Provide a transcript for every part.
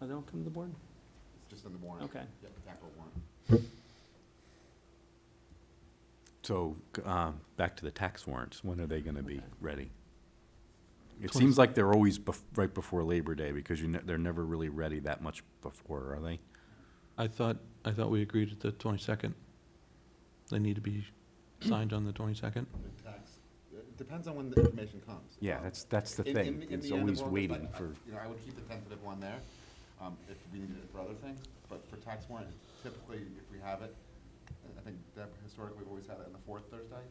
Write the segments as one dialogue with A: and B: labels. A: Oh, they don't come to the board?
B: just on the warrant.
A: Okay.
B: Yep, capital warrant.
C: So, um, back to the tax warrants, when are they gonna be
A: Okay.
C: ready? It
A: Twenty-
C: seems like they're always bef- right before Labor Day, because you ne- they're never really ready that much before, are they?
D: I thought, I thought we agreed at the 22nd. They need to be signed on the 22nd.
B: The tax, it depends on when the information comes.
C: Yeah,
B: Um,
C: that's, that's
B: in-
C: the
B: in-
C: thing,
B: in
C: it's
B: the end of
C: always
B: August,
C: waiting
B: I- I-
C: for,
B: You know, I would keep the tentative one there, um, if we needed it for other things, but for tax warrant, typically, if we have it, I think that historically, we've always had it on the fourth Thursday,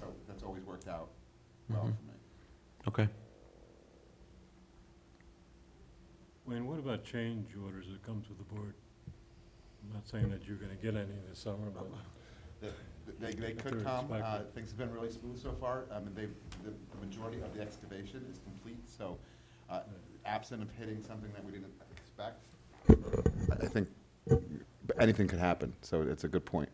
B: so that's always worked out well
D: Mhm.
B: for me.
D: Okay.
E: Wayne, what about change orders that come to the board? I'm not saying that you're gonna get any this summer, but
B: They- They, they
E: If
B: could
E: they're
B: come, uh,
E: expected.
B: things have been really smooth so far, I mean, they, the, the majority of the excavation is complete, so, uh, absent of hitting something that we didn't expect. I- I think anything could happen, so it's a good point.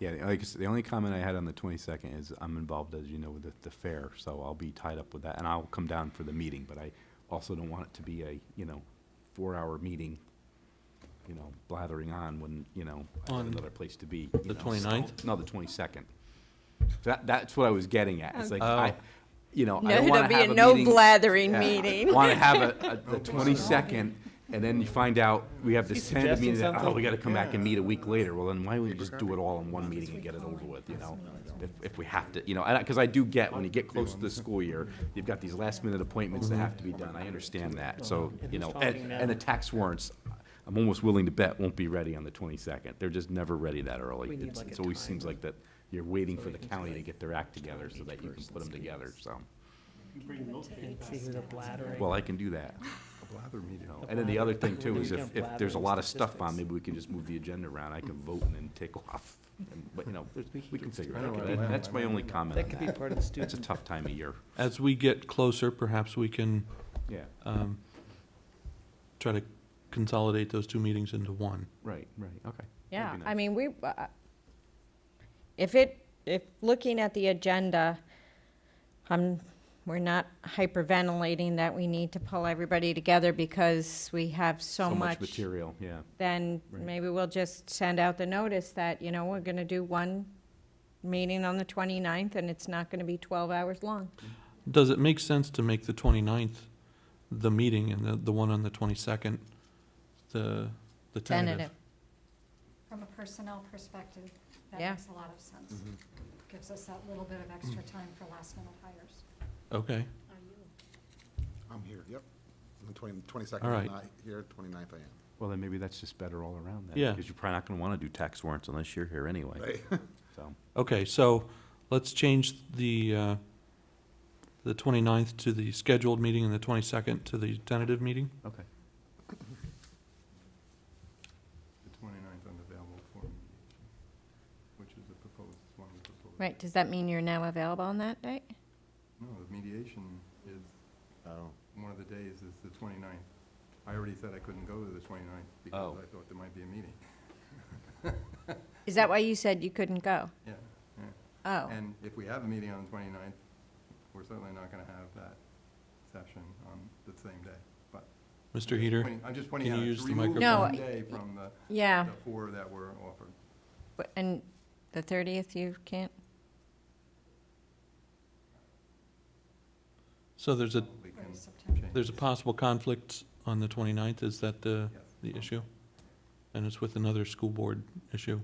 C: yeah, the- like, I s- the only comment I had on the twenty-second is, I'm involved, as you know, with the, the fair, so I'll be tied up with that, and I'll come down for the meeting, but I also don't want it to be a, you know, four-hour meeting, you know, blathering on when, you know, I have
D: On
C: another place to be. you
D: the
C: know, so-
D: 29th?
C: No, the twenty-second. That, that's what I was getting at, it's like, I,
D: Oh.
C: you know, I
F: No,
C: don't wanna
F: it'll
C: have
F: be
C: a meeting.
F: a no blathering
C: Yeah.
F: meeting.
C: Want to have a, a, the twenty-second, and then you find out, we have this
A: He's
C: tentative meeting,
A: suggesting
C: that, oh,
A: something.
C: we gotta come back and meet a week later, well, then why don't we just do it all in one meeting and get it over with, you know? If, if we have to, you know, and, I- cause I do get, when you get close to the school year, you've got these last minute appointments that have to be done, I understand that, so, you know, and, and the tax warrants, I'm almost willing to bet won't be ready on the twenty-second, they're just never ready that early.
F: We need,
C: It's,
F: like,
C: it's
F: a
C: always
F: time.
C: seems like that, you're waiting for the
A: Right, it's
C: county to
A: like
C: get their act together so
A: each
C: that you can
A: person's
C: put them together, so.
A: See who the blathering.
C: Well, I can do that. No, And then the other thing too is if, if there's a lot of stuff on, maybe we can just move the agenda around, I can vote and then take off. And- But, you know, there's- we can figure it out. That- That's my only comment
A: That could
C: on
A: be
C: that.
A: part of the
C: It's a
A: student.
C: tough time of year.
D: As we get closer, perhaps we can
C: Yeah,
D: um, try to consolidate those two meetings into one.
C: right, right, okay.
F: Yeah,
C: That'd be
F: I
C: nice.
F: mean, we, uh, if it, if, looking at the agenda, um, we're not hyperventilating that we need to pull everybody together because we have so much.
C: Material, yeah.
F: Then
C: Right.
F: maybe we'll just send out the notice that, you know, we're gonna do one meeting on the 29th and it's not gonna be twelve hours long.
D: Does it make sense to make the 29th the meeting and the, the one on the 22nd, the, the tentative?
F: Tentative.
G: From a personnel perspective, that
F: Yeah.
G: makes a lot of sense.
H: Mm-hmm.
D: Mm-hmm.
G: Gives us that little bit of
H: Mm.
G: extra time for last minute hires.
D: Okay,
B: I'm here, yep. On the 20 22nd,
D: All
B: I'm
D: right.
B: not here, 29th I am.
C: Well, then maybe that's just better all around then.
D: Yeah.
C: Because you're probably not gonna wanna do tax warrants unless you're here anyway. So,
D: okay, so let's change the, uh, the 29th to the scheduled meeting and the 22nd to the tentative meeting?
C: okay.
H: The 29th unavailable for me, which is the proposed, one of the proposed.
F: Right, does that mean you're now available on that date?
H: No, the mediation is,
B: Oh.
H: one of the days is the 29th. I already said I couldn't go to the 29th because
C: Oh.
H: I thought there might be a meeting.
F: Is that why you said you couldn't go?
H: Yeah, yeah.
F: Oh,
H: And if we have a meeting on the 29th, we're certainly not going to have that session on the same day, but.
D: Mr. Heater?
H: Pointing- I'm just pointing
D: can
H: out,
D: you
H: it's
D: use the
H: removed
F: No,
H: one
F: I-
H: day from the,
F: yeah.
H: the four that were offered.
F: But- And the 30th, you can't?
D: So there's a,
H: We can
G: Early September.
H: change.
D: there's a possible conflict on the 29th, is that the,
H: Yes.
D: the issue? And it's with another school board issue?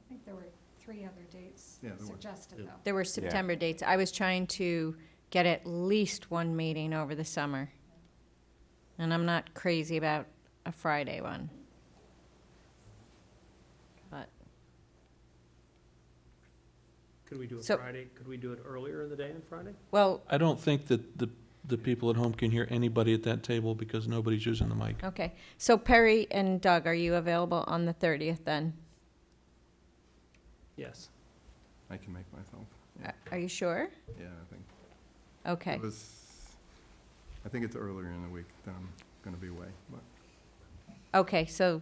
G: I think there were three other dates
H: Yeah, there were.
G: suggested,
B: Yeah.
G: though.
F: There were September dates. I was trying to get at least one meeting over the summer. And I'm not crazy about a Friday one. But,
A: Could we do it
F: So-
A: Friday? Could we do it earlier in the day on Friday?
F: well,
D: I don't think that the, the people at home can hear anybody at that table because nobody's using the mic.
F: okay. So Perry and Doug, are you available on the 30th then?
A: Yes.
H: I can make myself, yeah,
F: A- Are you sure?
H: yeah, I think.
F: Okay.
H: It was, I think it's earlier in the week that I'm going to be away, but.
F: Okay, so